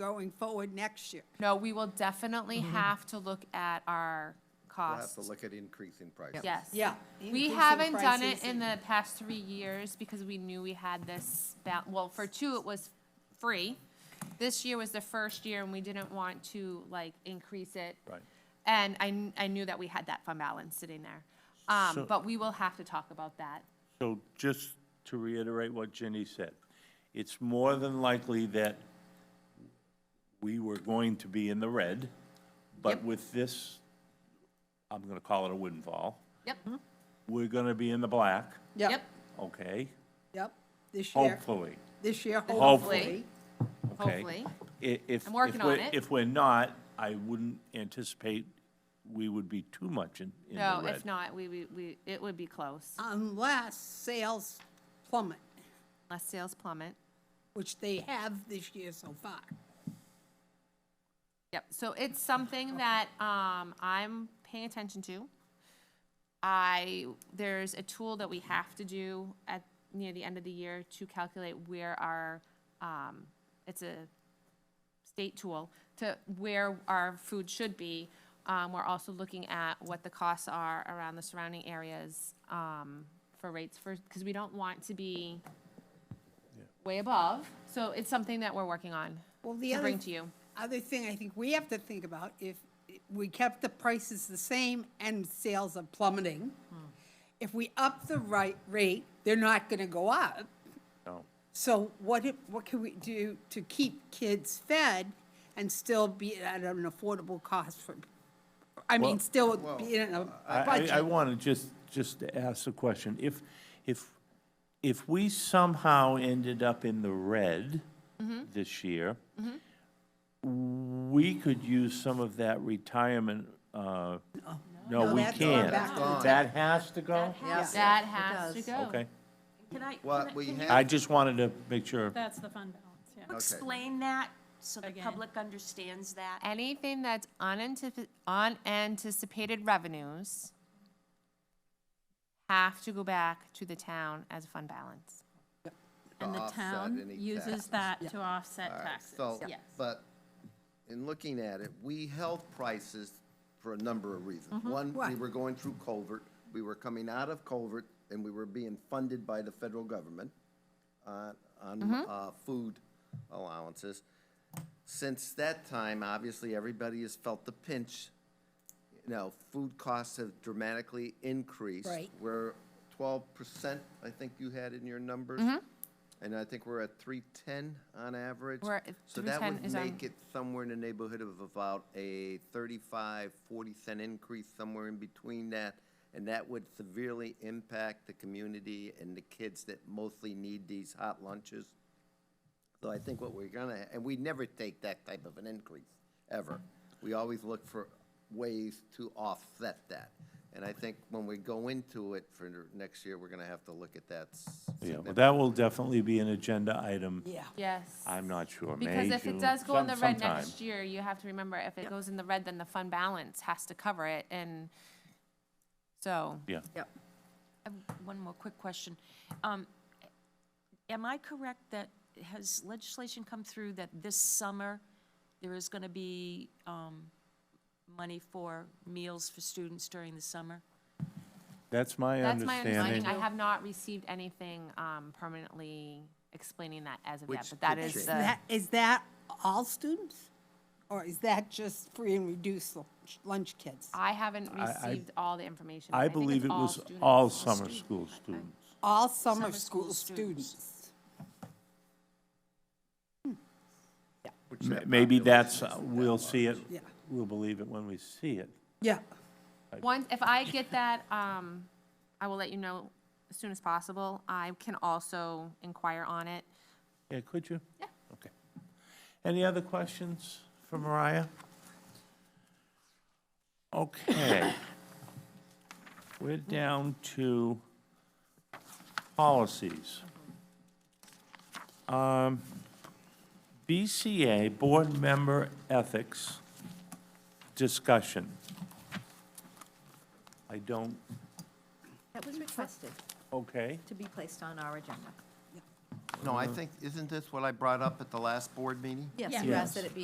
going forward next year. No, we will definitely have to look at our We'll have costs. to look at increasing prices. Yes. Yeah, We increasing haven't done prices it in the past three years because we knew we had this, ba- well, for two, it was free. This year was the first year and we didn't want to like increase it. Right. And I, kn- I knew that we had that fund balance sitting there. Um, So- but we will have to talk about that. So just to reiterate what Ginny said, it's more than likely that we were going to be in the red, but Yep. with this, I'm gonna call it a windfall, Yep, we're gonna be in the black, yep, Yep, okay? yep, this year, Hopefully, this year, Hopefully. hopefully. okay? Hopefully. I- If, I'm working if we're- on it. If we're not, I wouldn't anticipate we would be too much in, in the No, red. if not, we, we, we, it would be close, Unless sales plummet, unless sales plummet. which they have this year so far. Yep, so it's something that, um, I'm paying attention to. I, there's a tool that we have to do at, near the end of the year to calculate where our, um, it's a state tool to where our food should be. Um, we're also looking at what the costs are around the surrounding areas, um, for rates for, because we don't want to be way above, so it's something that we're working on Well, the to other bring to you. Other thing I think we have to think about, if we kept the prices the same and sales are plummeting, Hmm. if we up the right rate, they're not gonna go up. No. So what, if- what can we do to keep kids fed and still be at an affordable cost for, I mean, Well- still be in a I- I, I budget? want to just, just to ask the question, if, if, if we somehow ended up in the red Mm-hmm. this year, we could use some of that retirement, uh, no, No, we that's gone can't. back to the That has to go? has That has to go. Okay, Can I? What can I- we can you I have- just wanted to make sure, That's the fund balance, yeah. Explain that so the Again. public understands that. Anything that's unanticipated, unanticipated revenues have to go back to the town as a fund balance. To And the offset town any taxes. uses that to offset All right, taxes, So, yes. but in looking at it, we held prices for a number of reasons. One, we Mm-hmm. Right. were going through covert, we were coming out of covert, and we were being funded by the federal government on, on, Mm-hmm. uh, food allowances. Since that time, obviously, everybody has felt the pinch. You know, food costs have dramatically increased. Right. We're twelve percent, I think you had in your numbers. Mm-hmm. And I think we're at three-ten on average. We're at So that 310 would is our- make it somewhere in the neighborhood of about a 35, 40 cent increase, somewhere in between that. And that would severely impact the community and the kids that mostly need these hot lunches. So I think what we're gonna, and we never take that type of an increase, ever. We always look for ways to offset that. And I think when we go into it for next year, we're gonna have to look at that. s- yeah, well, that will definitely be an agenda item. Yeah. Yes. I'm not sure, May, Because if June, it does go in the some- red sometime. next year, you have to remember, if it goes in the red, then the fund balance has to cover it, and so, Yeah. I have One more quick question. Um, Am I correct that, has legislation come through that this summer, there is going to be um, money for meals for students during the summer? That's my that's my understanding. understanding. I have not received anything, um, permanently explaining that as of yet, Which but that could is change. the, That- Is that all students? Or is that just free and reduced lunch- lunch kids? I haven't I- received all the information. I think it's believe it all was students. all summer school students. All summer Summer school school students. which M- that Maybe that's, uh, population isn't that we'll see it, Yeah. we'll believe it when we see it. Yeah, Once, if I get that, um, I will let you know as soon as possible. I can also inquire on it. Yeah, could you? Yeah. Okay. Any other questions for Mariah? Okay. We're down to policies. Um, BCA, Board Member Ethics Discussion. I don't, That was requested okay, to be placed on our agenda. No, I think, isn't this what I brought up at the last board meeting? Yes, Yeah. you asked that it be